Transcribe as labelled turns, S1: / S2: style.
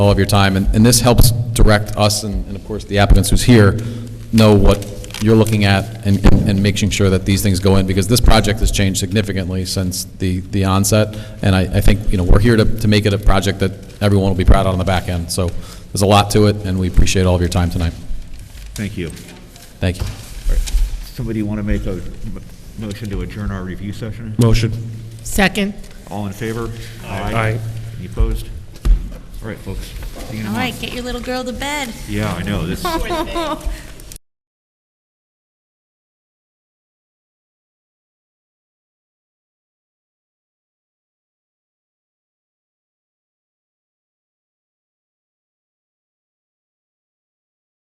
S1: all of your time, and and this helps direct us and, and of course, the applicants who's here, know what you're looking at and, and- and making sure that these things go in, because this project has changed significantly since the, the onset, and I, I think, you know, we're here to, to make it a project that everyone will be proud of on the back end, so there's a lot to it, and we appreciate all of your time tonight.
S2: Thank you.
S1: Thank you.
S2: Somebody want to make a m- motion to adjourn our review session?
S3: Motion.
S4: Second.
S2: All in favor?
S3: Aye.
S2: Any opposed? All right, folks. See you in a
S5: All right,
S2: month.
S5: get your little girl to bed.
S2: Yeah, I know, this,